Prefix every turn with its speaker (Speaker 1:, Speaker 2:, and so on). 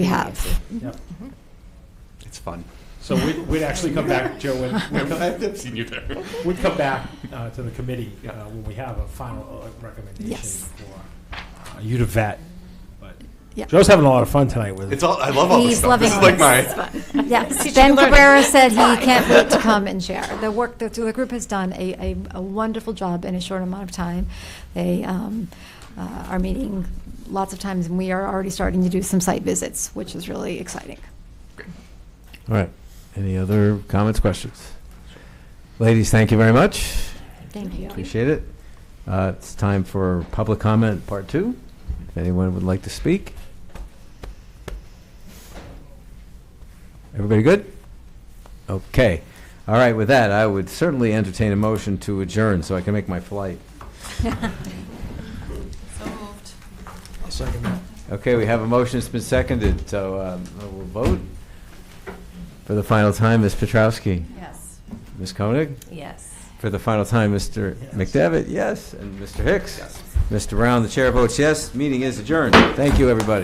Speaker 1: have.
Speaker 2: Yep.
Speaker 3: It's fun.
Speaker 2: So we'd, we'd actually come back, Joe, when, we'd come-
Speaker 3: I've seen you there.
Speaker 2: we'd come back uh, to the committee uh, when we have a final uh, recommendation
Speaker 1: Yes.
Speaker 2: for uh, you to vet. But
Speaker 1: Yeah.
Speaker 2: Joe's having a lot of fun tonight with
Speaker 3: It's all. I love all this
Speaker 1: He's
Speaker 3: stuff. This is
Speaker 1: loving
Speaker 3: like
Speaker 1: all
Speaker 3: my.
Speaker 1: this. Yes, Ben Cabrera said he can't wait to come and share. The work that the group has done, a, a- a wonderful job in a short amount of time. They um, uh, are meeting lots of times, and we are already starting to do some site visits, which is really exciting.
Speaker 4: All right. Any other comments, questions? Ladies, thank you very much.
Speaker 1: Thank you.
Speaker 4: Appreciate it. Uh, It's time for public comment, part two. If anyone would like to speak. Everybody good? Okay. All right, with that, I would certainly entertain a motion to adjourn so I can make my flight.
Speaker 5: So moved.
Speaker 4: Okay, we have a motion that's been seconded, so um, we'll vote. For the final time, Ms. Petrowski.
Speaker 5: Yes.
Speaker 4: Ms. Koenig?
Speaker 5: Yes.
Speaker 4: For the final time, Mr. McDevitt, yes, and Mr. Hicks? Mr. Brown, the chair votes yes. Meeting is adjourned. Thank you, everybody.